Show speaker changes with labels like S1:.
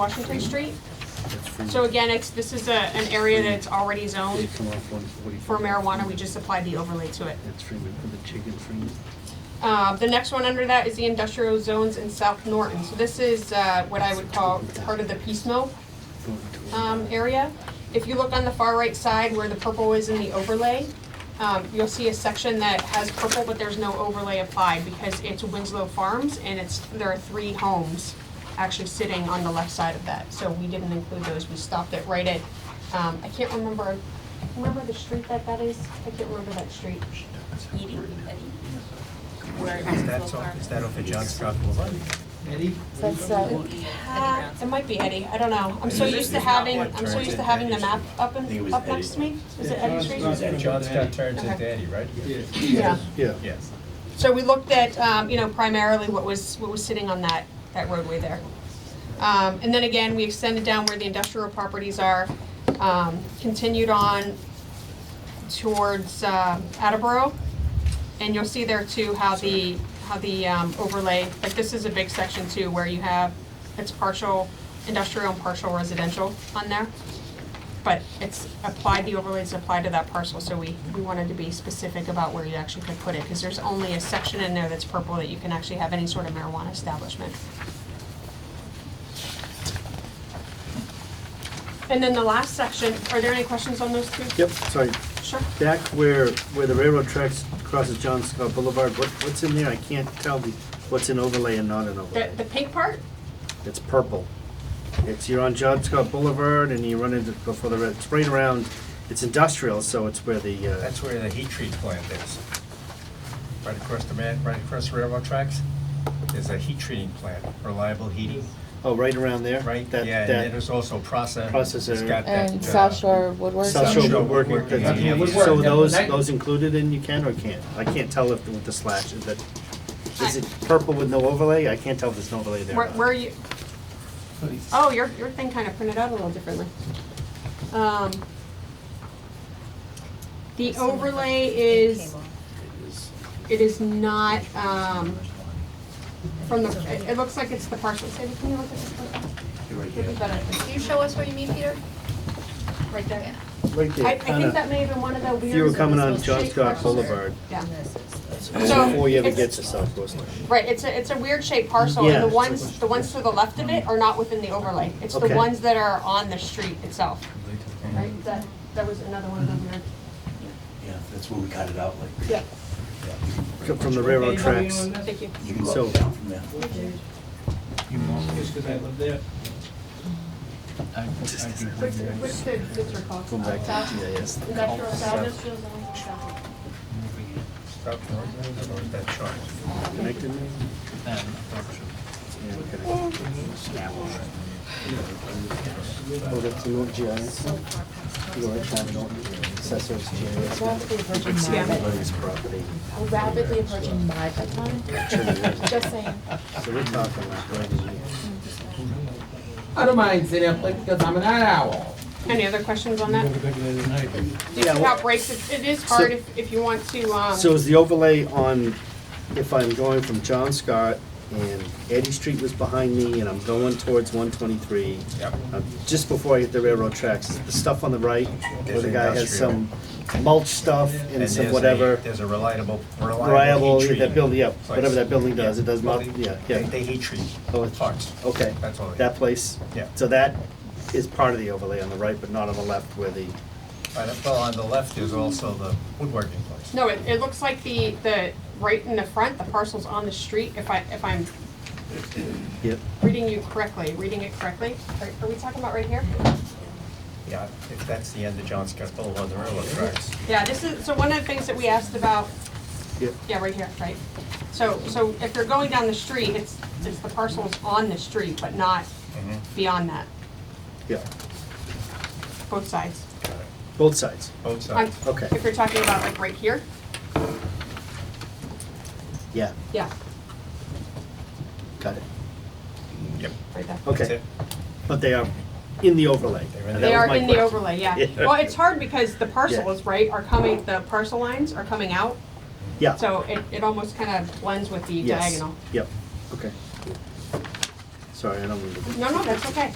S1: Washington Street. So again, it's, this is a, an area that's already zoned for marijuana, we just applied the overlay to it.
S2: That's Freeman, for the chicken Freeman.
S1: Uh, the next one under that is the industrial zones in South Norton. So this is, uh, what I would call part of the piece mill,
S2: Going to-
S1: um, area. If you look on the far right side where the purple is in the overlay, um, you'll see a section that has purple, but there's no overlay applied because it's Winslow Farms and it's, there are three homes actually sitting on the left side of that. So we didn't include those, we stopped it right at, um, I can't remember, remember the street that that is? I can't remember that street.
S3: Eating, Where
S4: Is that so, is that off of John Scott Boulevard?
S5: That's, uh,
S1: Uh, It might be Eddie, I don't know. I'm so used to having, I'm so used to having the map up
S4: think it
S1: and,
S4: was
S1: up next to me. Is it Eddie Street?
S4: Is that John Scott turns into Eddie, right?
S1: Yeah.
S2: Yeah.
S4: Yes.
S1: So we looked at, um, you know, primarily what was, what was sitting on that, that roadway there. Um, and then again, we extended down where the industrial properties are, um, continued on towards, um Attleboro. And you'll see there too how the, how the, um, overlay, like this is a big section too, where you have, it's partial industrial and partial residential on there. But it's applied, the overlays apply to that parcel, so we, we wanted to be specific about where you actually could put it, because there's only a section in there that's purple that you can actually have any sort of marijuana establishment. And then the last section, are there any questions on those two?
S2: Yep, sorry,
S1: Sure.
S2: back where, where the railroad tracks crosses John Scott Boulevard, what, what's in there? I can't tell the, what's in overlay and not in
S1: The,
S2: overlay.
S1: the pink part,
S2: It's purple. It's, you're on John Scott Boulevard and you run into, before the, red- it's right around, it's industrial, so it's where the, uh,
S4: That's where the heat treat plant is. Right across the man, right across the railroad tracks, there's a heat treating plant, Reliable Heating,
S2: oh, right around there?
S4: right?
S2: That-
S4: Yeah, and
S2: that-
S4: then there's also process.
S2: Processor.
S4: uh,
S5: and South Shore Woodworks.
S2: South Shore
S4: Shore
S2: Woodworking,
S4: Woodworking,
S2: that's-
S4: yeah, yeah, yeah.
S2: so
S4: Woodwork.
S2: those, those included in you can or can't? I can't tell if with the slash, is it, is it purple with no overlay? I can't tell if there's no overlay there. or
S1: where,
S2: not.
S1: where are you? Oh, your, your thing kind of printed out a little differently. Um, The overlay is, it is not, um, from the, it, it looks like it's the parcel, Sandy, can you look at this? photo? Would be better.
S3: Can you show us what you mean, Peter?
S1: Right there.
S2: Right
S1: I,
S2: there,
S1: I think
S2: kinda,
S1: that may have been one of the weirds.
S2: if you were
S1: that
S2: coming
S1: was
S2: on
S1: supposed to
S2: John
S1: shape
S2: Scott
S1: parcel.
S2: Boulevard,
S1: Yeah,
S2: before you ever
S1: it's-
S2: get to South Coast Line.
S1: right, it's a, it's a weird shaped parcel, and the
S2: Yeah.
S1: ones, the ones to the left of it are not within the overlay. It's the
S2: Okay.
S1: ones that are on the street itself, right? That, that was another one of the weird.
S6: Yeah, that's where we cut it out, like,
S1: Yeah.
S2: Come from the railroad tracks.
S1: Thank you.
S6: you can go
S2: So-
S6: up and down from there.
S1: What's, what's the, what's your call?
S2: Come back.
S1: South-
S2: Yeah, yes.
S1: Industrial
S4: South.
S1: South, industrial zone, south.
S4: Stop, or is that Charles?
S2: Connected me? Yeah, okay. Oh, that's the old GIS. You already found it, assessor's GIS.
S5: Rapidly approaching my,
S2: Lenny's property.
S5: rapidly approaching my bedtime, just saying.
S2: So we're talking like right in here.
S7: I don't mind sitting up late because I'm an owl.
S1: Any other questions on that? Do you
S2: Yeah,
S1: see
S2: well-
S1: how it breaks? It- It is hard if, if you want to, um,
S2: So is the overlay on, if I'm going from John Scott and Eddie Street was behind me and I'm going towards one twenty-three, uh,
S4: Yep.
S2: just before I hit the railroad tracks, the stuff on the right, where
S4: There's
S2: the guy has
S4: industrial.
S2: some mulch stuff and
S4: there's
S2: some
S4: a-
S2: whatever,
S4: There's a reliable, reliable
S2: reliable,
S4: heat treat.
S2: that building, yeah, whatever
S4: place.
S2: that building does, it does mul,
S4: Well, they-
S2: yeah,
S4: They,
S2: yeah,
S4: they heat treat
S2: Oh, it's-
S4: parts.
S2: okay.
S4: That's all they-
S2: That place?
S4: Yeah.
S2: So that is part of the overlay on the right, but not on the left where the,
S4: Right, uh, well, on the left is also the woodworking place.
S1: no, it, it looks like the, the, right in the front, the parcel's on the street, if I, if I'm
S2: yep,
S1: reading you correctly, reading it correctly. Are, are we talking about right here?
S4: Yeah, if that's the end of John Scott Boulevard, the railroad tracks.
S1: Yeah, this is, so one of the things that we asked about,
S2: yep.
S1: yeah, right here, right? So, so if you're going down the street, it's, it's the parcels on the street, but not
S4: Mhm.
S1: beyond that,
S2: Yeah,
S1: both sides.
S2: both sides.
S4: Both
S1: On-
S4: sides.
S2: Okay.
S1: If you're talking about like right here,
S2: Yeah,
S1: yeah,
S2: got it.
S4: Yep.
S1: right there.
S4: That's
S2: Okay,
S4: it.
S2: but they are in the overlay.
S4: They're in
S2: and
S4: the-
S1: They
S2: that was
S1: are
S2: my
S1: in the
S2: question.
S1: overlay, yeah.
S2: Yeah.
S1: Well, it's hard because the parcels,
S2: Yeah.
S1: right, are coming, the parcel lines are coming out,
S2: Yeah.
S1: so it, it almost kind of blends with the
S2: Yes.
S1: diagonal.
S2: Yep, okay. Sorry, I don't mean to.
S1: No, no, that's okay.